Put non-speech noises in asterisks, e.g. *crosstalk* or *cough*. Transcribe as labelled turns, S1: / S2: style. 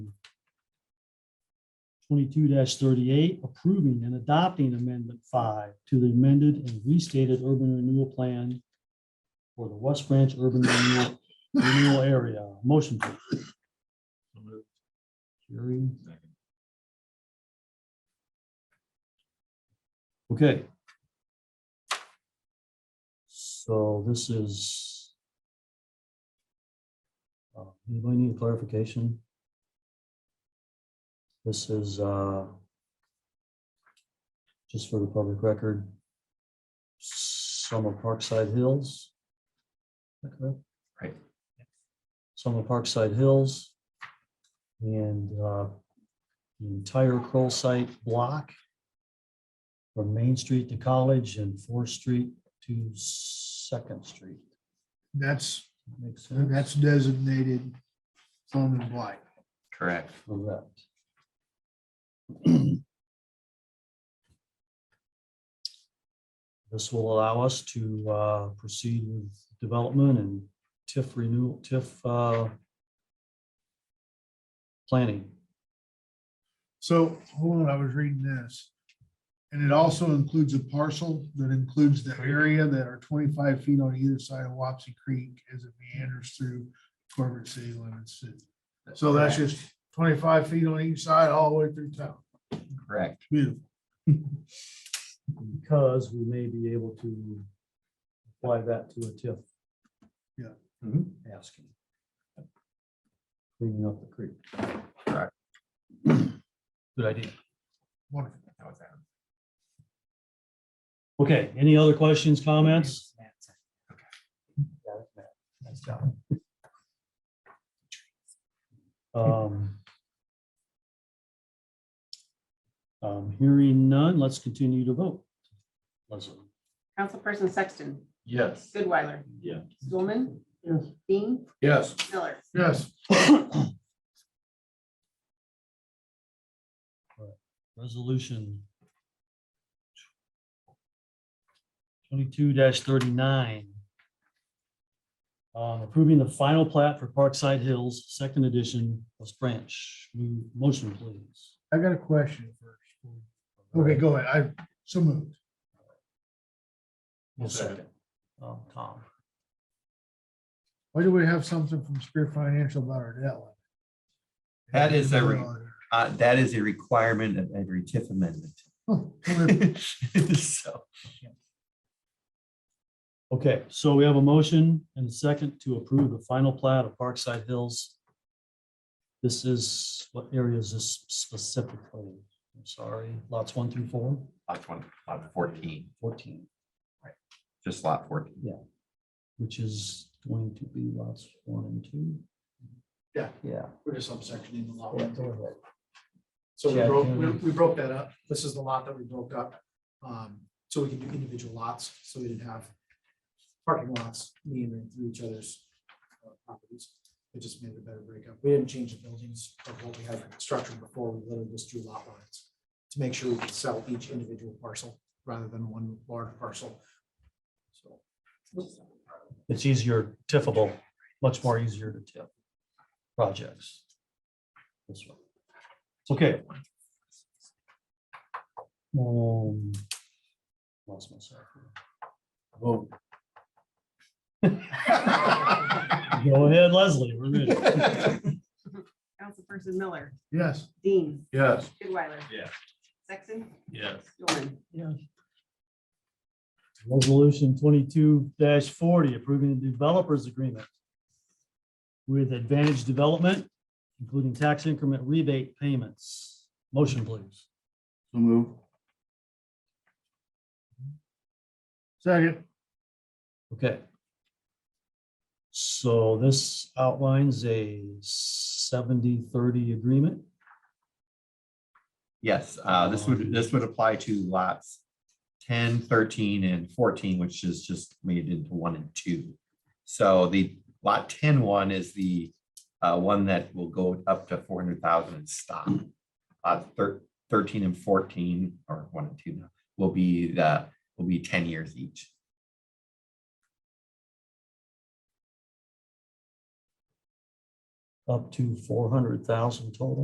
S1: twenty-two thirty-eight, approving and adopting amendment five to the amended and restated urban renewal plan for the West Branch Urban Renewal- Renewal Area. Motion. please. Jerry. Okay. So this is. uh, Anybody need clarification? This is uh, just for the public record. Summer Parkside Hills. Is that correct?
S2: Right.
S1: Summer Parkside Hills. And uh, the entire Kroll site block from Main Street to College and Fourth Street to Second Street.
S3: That's,
S1: Makes sense?
S3: that's designated Thorman Blight.
S2: Correct.
S1: Correct. This will allow us to uh, proceed with development and TIF renewal, TIF uh, planning.
S3: So, hold on, I was reading this. And it also includes a parcel that includes the area that are twenty-five feet on either side of Wapsie Creek as it meanders through corporate city limits. So that's just twenty-five feet on each side all the way through town.
S2: Correct.
S3: Beautiful.
S1: Because we may be able to apply that to a TIF.
S3: Yeah.
S2: Mhm.
S1: Asking. Cleaning up the creek.
S2: Correct.
S1: Good idea.
S3: Wonderful.
S2: That was Adam.
S1: Okay, any other questions, comments? Um, um, Hearing none, let's continue to vote. Leslie.
S4: Councilperson Sexton,
S2: Yes.
S4: Goodweiler,
S2: Yeah.
S4: Stulman.
S3: Yes.
S4: Dean,
S2: Yes.
S4: Miller.
S3: Yes,
S1: Resolution twenty-two thirty-nine. Um, approving the final plat for Parkside Hills, second edition, West Branch. Mo- Motion, please.
S3: I got a question first. Okay, go ahead. I, so moved.
S1: One second. Um, Tom.
S3: Why do we have something from Spear Financial about our debt? limit?
S2: That is a re- Uh, that is a requirement of every
S3: *laughs*
S2: TIF amendment.
S3: Oh, okay.
S1: *laughs*
S2: So,
S1: Okay, so we have a motion and a second to approve the final plat of Parkside Hills. This is, what area is this specifically? I'm sorry, lots one through four,
S2: lot twenty, lot fourteen,
S1: fourteen,
S2: just lot fourteen.
S1: which is going to be lots one and two.
S5: Yeah.
S1: Yeah.
S5: We're just subsectioning the lot.
S1: yeah,
S5: one.
S1: go ahead.
S5: So we
S1: Chad,
S5: broke,
S1: can
S5: we
S1: we-
S5: we broke that up. This is the lot that we broke up. Um, so we could do individual lots, so we didn't have parking lots meandering through each other's uh, properties. It just made it a better breakup. We didn't change the buildings of what we had structured before. We literally just drew lot lines to make sure we could sell each individual parcel rather than one large parcel. So.
S1: It's easier tiffable, much more easier to tip projects. This one. It's okay. Um. Lost myself. Vote. *laughs* Go ahead, Leslie, we're ready.
S4: Councilperson Miller,
S3: Yes.
S4: Dean,
S3: Yes.
S4: Goodweiler.
S2: Yeah.
S4: Sexton,
S2: Yes.
S4: Stulman.
S1: Resolution twenty-two forty, approving the developers agreement with Advantage Development, including tax increment rebate payments. Motion, please.
S3: Move. Second.
S1: Okay. So this outlines a 70-30 agreement.
S2: Yes, uh, this would, this would apply to lots 10, 13, and fourteen, which is just made into one and two. So the lot 10 one is the, uh, one that will go up to four hundred thousand and stop. Uh, thir- thirteen and fourteen, or one and two now, will be the, will be ten years each.
S1: up to four hundred thousand total.